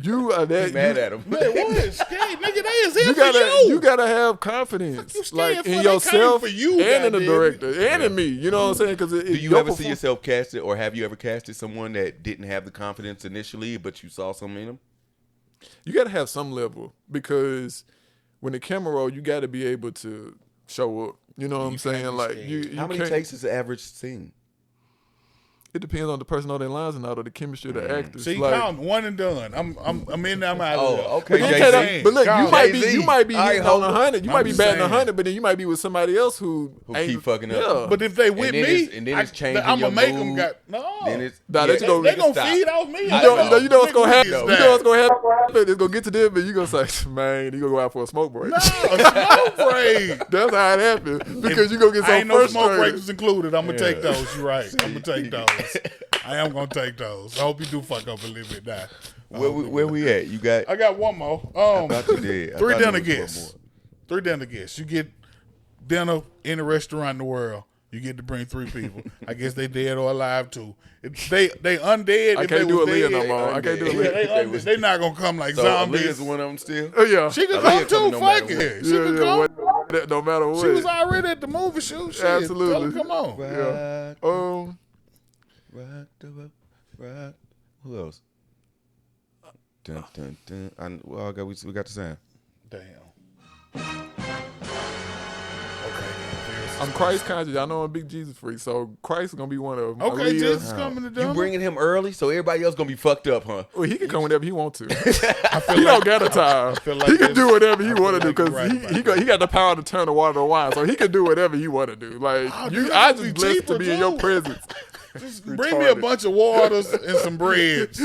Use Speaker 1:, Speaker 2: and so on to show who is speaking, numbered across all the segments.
Speaker 1: You are that.
Speaker 2: He mad
Speaker 1: you-
Speaker 2: at him.
Speaker 3: Man, what? Scared, nigga, they is here
Speaker 1: You
Speaker 3: for
Speaker 1: gotta,
Speaker 3: you.
Speaker 1: you gotta have confidence,
Speaker 3: Fuck you scared
Speaker 1: like
Speaker 3: for?
Speaker 1: in
Speaker 3: They
Speaker 1: yourself
Speaker 3: coming for you,
Speaker 1: and in the
Speaker 3: goddamn.
Speaker 1: director and in me. You know what I'm saying? Because
Speaker 2: Mm-hmm. Do you ever see yourself casted, or have you ever casted someone that didn't have the confidence initially, but you saw something in them?
Speaker 1: you got to have some level because when the camera roll, you got to be able to show up. You know what I'm saying? Like you, you
Speaker 2: How many
Speaker 1: can't-
Speaker 2: takes is the average scene?
Speaker 1: It depends on the person on their lines and out of the chemistry of the
Speaker 2: Mm.
Speaker 1: actors.
Speaker 3: See,
Speaker 1: like,
Speaker 3: calm, one and done. I'm, I'm, I'm in. I'm out.
Speaker 2: Oh,
Speaker 3: of there.
Speaker 2: okay,
Speaker 1: But you
Speaker 2: Jay-Z.
Speaker 1: can't-
Speaker 2: Jay-Z.
Speaker 1: but look, you
Speaker 3: Calm.
Speaker 1: might be
Speaker 2: Jay-Z.
Speaker 1: you might be
Speaker 2: All right,
Speaker 1: hitting on
Speaker 2: hold-
Speaker 1: a hundred. You
Speaker 3: I'm
Speaker 1: might be
Speaker 3: just
Speaker 1: batting a
Speaker 3: saying.
Speaker 1: hundred, but then you might be with somebody else who
Speaker 2: Who
Speaker 1: ain't-
Speaker 2: keep fucking up.
Speaker 1: Yeah.
Speaker 3: But if they with
Speaker 2: then
Speaker 3: me,
Speaker 2: it's- and then it's changing
Speaker 3: I'm
Speaker 2: your
Speaker 3: gonna make them
Speaker 2: mood.
Speaker 3: got no.
Speaker 2: Then it's
Speaker 1: Nah, that's
Speaker 3: they,
Speaker 1: gonna-
Speaker 3: they gonna
Speaker 2: stop.
Speaker 3: feed off me.
Speaker 2: I
Speaker 1: You know, you know, you know what's
Speaker 3: Nigga
Speaker 1: gonna happen.
Speaker 3: is
Speaker 1: You know
Speaker 3: down.
Speaker 1: what's gonna happen. It's gonna get to them, and you gonna say, "Man, you gonna go out for a smoke break."
Speaker 3: No, smoke break.
Speaker 1: That's how it happens because you gonna get so
Speaker 3: I ain't no
Speaker 1: frustrated.
Speaker 3: smoke breaks included. I'm gonna
Speaker 2: Yeah.
Speaker 3: take those. You're right. I'm gonna take those. I am gonna take those. I hope you do fuck up a little bit now.
Speaker 2: Where we, where we at? You got
Speaker 3: I got one more. Um,
Speaker 2: thought you did. I
Speaker 3: three
Speaker 2: thought there
Speaker 3: dinner
Speaker 2: was one
Speaker 3: guests.
Speaker 2: more.
Speaker 3: Three dinner guests. You get dinner in a restaurant in the world. You get to bring three people. I guess they dead or alive too. If they they undead.
Speaker 1: I
Speaker 3: if
Speaker 1: can't
Speaker 3: they
Speaker 1: do
Speaker 3: was
Speaker 1: Aaliyah no
Speaker 3: dead,
Speaker 1: more. I can't do
Speaker 2: Yeah,
Speaker 3: Yeah,
Speaker 1: Aaliyah.
Speaker 3: they,
Speaker 2: If they
Speaker 3: undead,
Speaker 2: was-
Speaker 3: they not gonna come like
Speaker 2: so
Speaker 3: zombies.
Speaker 2: Aaliyah's one of them still.
Speaker 1: Oh, yeah.
Speaker 3: She could
Speaker 2: Aaliyah coming
Speaker 3: come too.
Speaker 2: no matter
Speaker 3: fuck
Speaker 2: what.
Speaker 3: it. She
Speaker 1: yeah,
Speaker 3: could
Speaker 1: yeah,
Speaker 3: come.
Speaker 1: what- no matter what.
Speaker 3: She was already at the movie shoot. Shit. Absolutely.
Speaker 1: Absolutely.
Speaker 3: come on.
Speaker 2: Rock,
Speaker 1: um,
Speaker 2: rock the boat, rock. Who else? Dun, dun, dun. I, well, I got, we, we got the sound.
Speaker 3: Damn. Okay.
Speaker 1: I'm Christ conscious. I know I'm a big Jesus freak, so Christ is gonna be one of them.
Speaker 3: Okay,
Speaker 1: Aaliyah.
Speaker 3: Jesus coming to
Speaker 2: You
Speaker 3: dinner.
Speaker 2: bringing him early, so everybody else gonna be fucked up, huh?
Speaker 1: Well, he can come whenever he wants to. he don't got a time.
Speaker 3: feel like
Speaker 1: he can
Speaker 3: this-
Speaker 1: do whatever he
Speaker 3: I feel
Speaker 1: want to do
Speaker 3: like you're
Speaker 1: because
Speaker 3: right about
Speaker 1: he he
Speaker 3: that.
Speaker 1: got, he got the power to turn the water to wine, so he can do whatever he want to do. Like
Speaker 3: Oh,
Speaker 1: you,
Speaker 3: dude,
Speaker 1: I
Speaker 3: that'd be
Speaker 1: just blessed to
Speaker 3: cheaper,
Speaker 1: be in your
Speaker 3: too.
Speaker 1: presence.
Speaker 3: Just bring me a
Speaker 1: retarded.
Speaker 3: bunch of waters and some breads.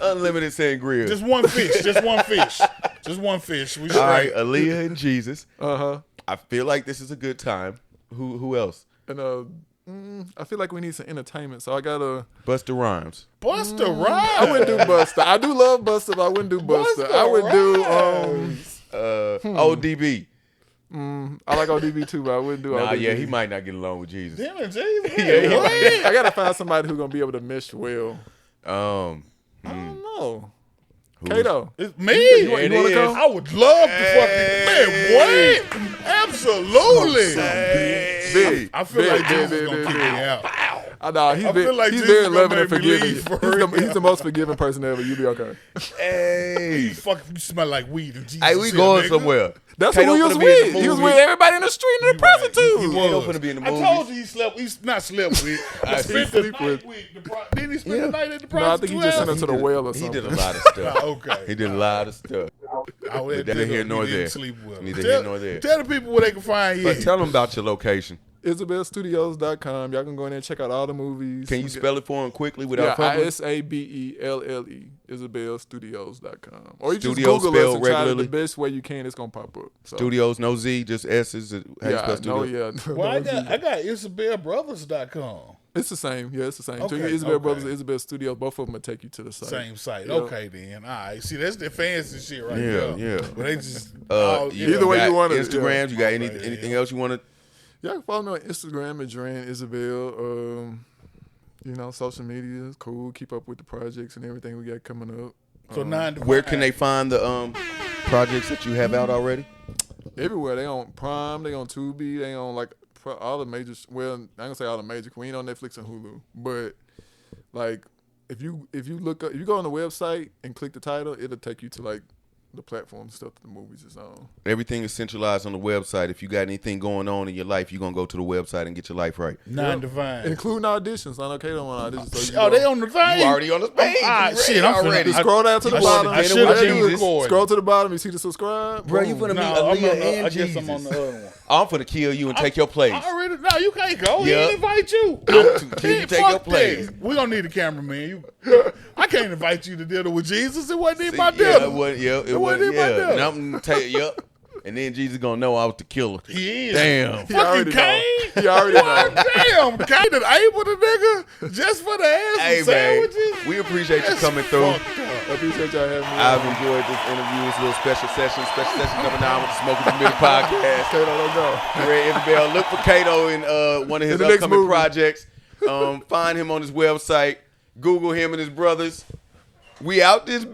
Speaker 2: Unlimited sangria.
Speaker 3: Just one fish. Just one fish. Just one fish. We should
Speaker 2: All right, Aaliyah and Jesus.
Speaker 1: Uh huh.
Speaker 2: I feel like this is a good time. Who who else?
Speaker 1: And uh, mm, I feel like we need some entertainment, so I gotta.
Speaker 2: Buster Rhymes.
Speaker 3: Buster
Speaker 1: Mm. I wouldn't
Speaker 3: Rhymes.
Speaker 1: do Buster. I do love Buster, but I wouldn't do Buster. I would do um.
Speaker 2: Uh, ODB.
Speaker 1: I like ODB too, but I wouldn't do.
Speaker 2: Nah,
Speaker 1: ODB.
Speaker 2: yeah, he might not get along with Jesus.
Speaker 3: Damn it, Jesus.
Speaker 2: Yeah, he
Speaker 3: What?
Speaker 2: might.
Speaker 1: I gotta find somebody who's gonna be able to mesh well.
Speaker 2: Um,
Speaker 1: I don't know.
Speaker 2: who's-
Speaker 1: Kato.
Speaker 3: It's me.
Speaker 1: You,
Speaker 2: It
Speaker 1: you wanna
Speaker 2: is.
Speaker 1: come?
Speaker 3: I would love to
Speaker 2: Hey.
Speaker 3: fucking man. What? Absolutely.
Speaker 2: Big.
Speaker 3: I feel
Speaker 1: Big,
Speaker 3: like
Speaker 1: big,
Speaker 3: Jesus
Speaker 1: big,
Speaker 3: gonna
Speaker 1: big,
Speaker 3: kick me
Speaker 1: big.
Speaker 3: out.
Speaker 1: I know Oh, he's,
Speaker 3: I
Speaker 1: very,
Speaker 3: feel like
Speaker 1: he's
Speaker 3: Jesus
Speaker 1: very
Speaker 3: gonna
Speaker 1: loving and
Speaker 3: make me
Speaker 1: forgiving.
Speaker 3: leave
Speaker 1: He's
Speaker 3: for
Speaker 1: the,
Speaker 3: real.
Speaker 1: he's the most forgiving person ever. You'll be okay.
Speaker 2: Hey.
Speaker 3: Fuck, you smell like weed and Jesus.
Speaker 2: Hey, we
Speaker 3: here,
Speaker 2: going
Speaker 3: nigga.
Speaker 2: somewhere.
Speaker 1: That's who
Speaker 2: Kato
Speaker 1: he
Speaker 2: finna
Speaker 1: was
Speaker 2: be in the
Speaker 1: with. He was
Speaker 2: movie.
Speaker 1: with everybody in the street and the prison
Speaker 3: He- he
Speaker 1: too.
Speaker 2: Kato
Speaker 3: was.
Speaker 2: finna be in the
Speaker 3: I
Speaker 2: movie.
Speaker 3: told you he slept. He's not slept with.
Speaker 2: I
Speaker 3: I
Speaker 2: see.
Speaker 3: spent the
Speaker 1: Sleep
Speaker 3: night
Speaker 1: with.
Speaker 3: with. the pro- Didn't he spend
Speaker 2: Yeah.
Speaker 3: the night at the
Speaker 1: No, I think he
Speaker 3: prostitute
Speaker 1: just
Speaker 3: house?
Speaker 1: sent her to the
Speaker 2: did-
Speaker 1: well or
Speaker 2: He
Speaker 1: something.
Speaker 2: did a lot of
Speaker 3: Ah,
Speaker 2: stuff.
Speaker 3: okay.
Speaker 2: He did a lot of stuff.
Speaker 3: I would
Speaker 2: Neither here nor
Speaker 3: he didn't
Speaker 2: there.
Speaker 3: Sleep well.
Speaker 2: Neither
Speaker 3: tell,
Speaker 2: here nor there.
Speaker 3: Tell the people where they can find you.
Speaker 2: But tell them about your location.
Speaker 1: IsabelStudios.com. Y'all can go in there and check out all the movies.
Speaker 2: Can you spell it for him quickly
Speaker 1: Yeah,
Speaker 2: without
Speaker 1: I
Speaker 2: fumbling?
Speaker 1: S A B E L L E. IsabelStudios.com. Or you
Speaker 2: Studio
Speaker 1: just Google us
Speaker 2: spelled
Speaker 1: and
Speaker 2: regularly?
Speaker 1: try it the best way you can. It's gonna pop up. So,
Speaker 2: Studios, no Z, just S's. How you
Speaker 1: Yeah,
Speaker 2: spell
Speaker 1: no,
Speaker 2: studio?
Speaker 1: yeah.
Speaker 3: well, I got I got IsabelBrothers.com.
Speaker 1: It's the same. Yeah, it's the same. So you
Speaker 3: Okay,
Speaker 1: Isabel
Speaker 3: okay.
Speaker 1: Brothers, Isabel Studios. Both of them will take you to the site.
Speaker 3: Same site.
Speaker 1: Yeah.
Speaker 3: Okay, then. All right. See, that's the fancy shit right
Speaker 2: Yeah,
Speaker 3: there.
Speaker 2: yeah.
Speaker 3: But they just
Speaker 2: Uh,
Speaker 3: all,
Speaker 1: Either way
Speaker 2: got
Speaker 1: you want it,
Speaker 2: Instagrams. You got any,
Speaker 3: Yeah.
Speaker 2: anything else you want to?
Speaker 1: Y'all can follow me on Instagram at Dran Isabel. Um, you know, social media is cool. Keep up with the projects and everything we got coming up.
Speaker 3: So
Speaker 2: Uh-huh.
Speaker 3: nine. to
Speaker 2: Where
Speaker 3: five.
Speaker 2: can they find the um projects that you have out already?
Speaker 1: Everywhere they on Prime, they on Tubi, they on like pro- all the major. Well, I ain't gonna say all the major. 'cause We ain't on Netflix and Hulu, but like if you if you look up, if you go on the website and click the title, it'll take you to like the platform and stuff that the movies is on.
Speaker 2: Everything is centralized on the website. If you got anything going on in your life, you're gonna go to the website and get your life right.
Speaker 3: Nine divine.
Speaker 1: Including auditions, I know Kato on auditions. So you
Speaker 3: Oh,
Speaker 1: go-
Speaker 3: they on the thing.
Speaker 2: You already on the page.
Speaker 3: I'm- ah,
Speaker 2: You
Speaker 3: shit,
Speaker 2: ready
Speaker 3: I'm finna-
Speaker 2: already.
Speaker 3: I-
Speaker 1: Scroll down to the
Speaker 3: I
Speaker 1: bottom.
Speaker 3: should've- I should've
Speaker 1: I do
Speaker 3: been
Speaker 1: it.
Speaker 3: recording.
Speaker 1: Scroll to the bottom. You see the subscribe.
Speaker 2: Bro, you
Speaker 1: Boom.
Speaker 2: finna
Speaker 3: No,
Speaker 2: meet
Speaker 3: I'm on
Speaker 2: Aaliyah
Speaker 3: the-
Speaker 2: and
Speaker 3: I guess
Speaker 2: Jesus.
Speaker 3: I'm on the other one.
Speaker 2: I'm finna kill you and take your place.
Speaker 3: I already no, you can't go. He
Speaker 2: Yeah.
Speaker 3: didn't invite you.
Speaker 2: too-
Speaker 3: He-
Speaker 2: you take
Speaker 3: fuck
Speaker 2: your place.
Speaker 3: that. We don't need a cameraman. You, I can't invite you to dinner with Jesus. It wasn't even my dinner.
Speaker 2: Yeah, it was. Yeah, it, was.
Speaker 3: wasn't in my
Speaker 2: Yeah,
Speaker 3: dinner.
Speaker 2: and I'm gonna tell you. Yep. And then Jesus gonna know I was the killer.
Speaker 3: He is.
Speaker 2: Damn.
Speaker 1: He
Speaker 3: Fucking
Speaker 1: already know.
Speaker 3: Cain.
Speaker 1: He already know.
Speaker 3: Damn, Cain and Abel the nigga just for the ass
Speaker 2: Hey
Speaker 3: and
Speaker 2: man,
Speaker 3: sandwiches.
Speaker 2: we appreciate you
Speaker 3: That's
Speaker 2: coming through.
Speaker 3: fucked up.
Speaker 1: I appreciate y'all having me.
Speaker 2: I've enjoyed this interview, this little special session, special session number nine with the Smoking the Middle podcast.
Speaker 1: Kato, don't go.
Speaker 2: Red Isabel. Look for Kato in uh, one of his
Speaker 1: In the next
Speaker 2: upcoming
Speaker 1: movie.
Speaker 2: projects. Um, find him on his website. Google him and his brothers. We out this